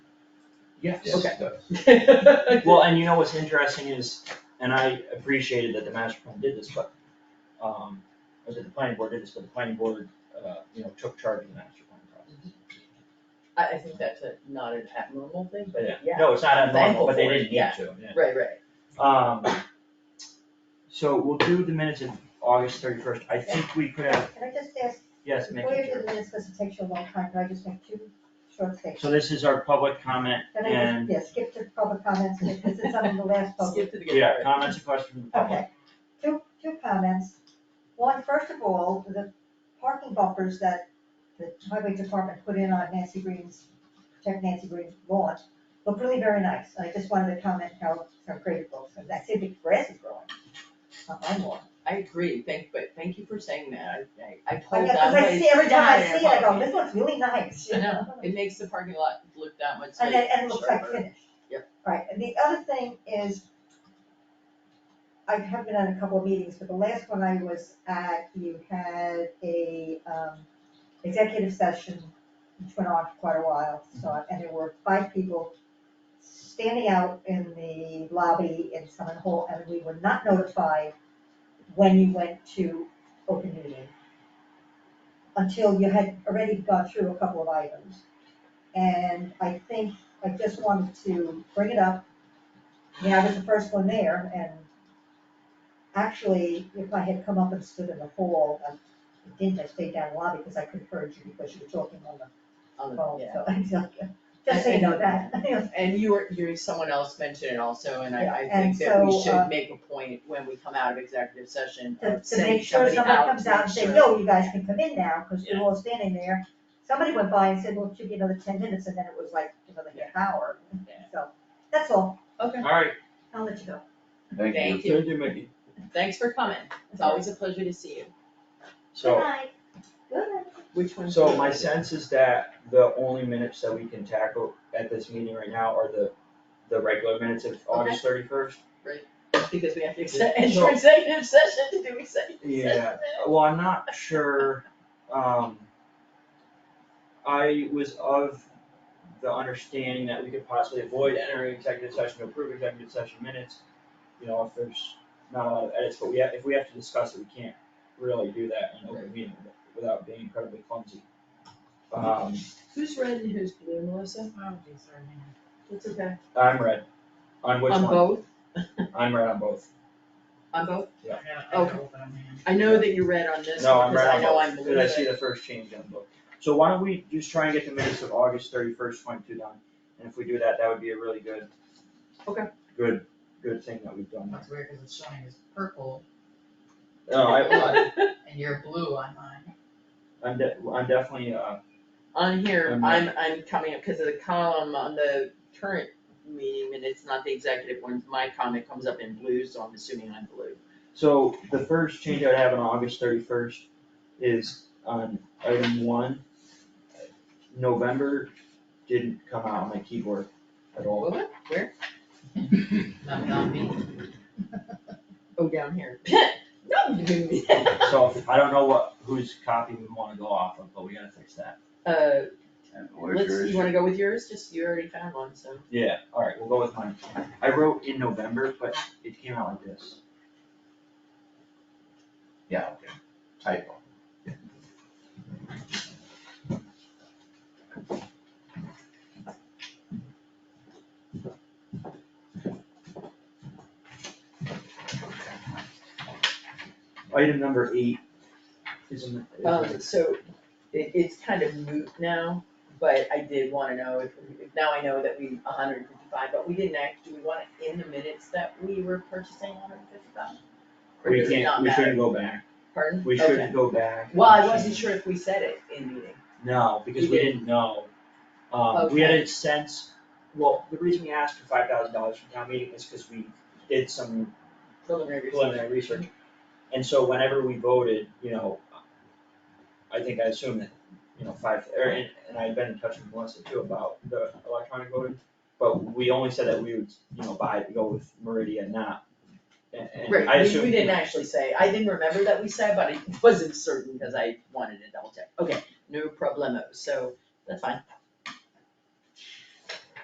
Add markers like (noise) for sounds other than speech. Yes. Okay. (laughs) Well, and you know what's interesting is, and I appreciated that the master plan did this, but, um, or that the planning board did this, but the planning board, uh, you know, took charge of the master plan process. I, I think that's a, not an abnormal thing, but yeah. No, it's not abnormal, Thankful but they for it, didn't need yeah. to, yeah. Right, right. Um, so we'll do the minutes of August thirty-first, I think we could have, Can I just ask, yes, make before you it do sure. the minutes, because it takes you a long time, can I just make two short statements? So this is our public comment Can I and, just, yeah, skip to public comments, because it's on the (laughs) last public. Skip to the good yeah, part. comments and questions from the public. Okay, two, two comments. One, first of all, the parking bumpers that the highway department put in on Nancy Green's, protect Nancy Green's lawn, look really very nice. And I just wanted to comment how, how great it looks, and I see the grass is growing on my lawn. I agree, thank, but thank you for saying that, I, I, I I told guess, that. cause I see, every time I guy see it, I go, about this looks really nice, you I know? (laughs) know, it makes the parking lot look that much And nicer. it, and it looks like finished. Yep. Right, and the other thing is, I have been on a couple of meetings, but the last one I was at, you had a, um, executive session, which went on for quite a while, so, and there were five people standing out in the lobby in Summit Hall, and we were not notified when you went to open meeting until you had already gone through a couple of items. And I think, I just wanted to bring it up. I mean, I was the first one there and actually, if I had come up and stood in the hall, I didn't, I stayed down in the lobby because I couldn't heard you because you were talking on the On the- phone, Oh, yeah. Oh, so I'm just, just so you (laughs) know that. (laughs) And you were, you're, someone else mentioned it also, and Yeah, I, I and think that we so, should um, make a point when we come out of executive session To, of to sending make sure somebody somebody out comes to out make and sure. says, no, you guys can come in now, because Yeah. you're all standing there. Somebody went by and said, well, it should be another ten minutes, and then it was like another half hour, Yeah. so, that's all, Okay, Alright, I'll let you go. Thank you. Thank you, Mickey. thanks for coming, it's always a pleasure to see you, so. Good night. Good night. which one's? So my sense is that the only minutes that we can tackle at this meeting right now are the, the regular minutes of August thirty-first. Because we have to accept, So- enter executive session to do executive session. Yeah, well, I'm not sure, um. I was of the understanding that we could possibly avoid entering executive session, to approve executive session minutes. You know, if there's not a lot of edits, but we have, if we have to discuss it, we can't really do that in open meeting without being incredibly clumsy. Um, Who's red and who's blue, Melissa? Oh, geez, sorry, hang on. It's okay. I'm red, on which one? On both, I'm red on both. on both, Yeah. I gotta- I gotta open up my hand. I know that you read on this, because No, I'm right I on know both, I'm blue, Did I see but- the first change on both. So why don't we just try and get the minutes of August thirty-first, twenty-two done, and if we do that, that would be a really good. Okay. Good, good thing that we've done. That's weird, cause it's showing as purple No, I, and you're blue on mine. I'm de- I'm definitely, uh, On here, I'm I'm, I'm coming up, cause of the column on the current meeting minutes, not the executive one, my comment comes up in blue, so I'm assuming I'm blue. so the first change I would have on August thirty-first is on item one. November didn't come out on my keyboard at all. What? Where? Not on me. Oh, down here. (laughs) No, you didn't mean that. So I don't know what, whose copy we wanna go off of, but we gotta fix that. Uh, Where's let's, yours? you wanna go with yours, just, you already found one, so. Yeah, alright, we'll go with mine. I wrote in November, but it came out like this. Yeah, okay, typo. Item number eight is in the. Um, so it, it's kind of moot now, but I did wanna know if, if- now I know that we hundred and fifty-five, but we didn't act, do we want it in the minutes that we were purchasing hundred and fifty-five? Or We does it not can't, we matter? shouldn't go back, Pardon? we Okay. shouldn't go back. Well, I wasn't sure if we said it in meeting. No, because You we didn't. didn't know. Um, we had a sense, well, the reason we asked for five thousand dollars from town meeting is cause we did some Preliminary preliminary research. And so whenever we voted, you know, I think I assumed that, you know, five, or, and, and I'd been in touch with Melissa too about the electronic voting. But we only said that we would, you know, buy, go with Meridian, not, and, and I Right, we, assumed. we didn't actually say, I didn't remember that we said, but I wasn't certain because I wanted to double check. Okay, no problemo, so that's fine.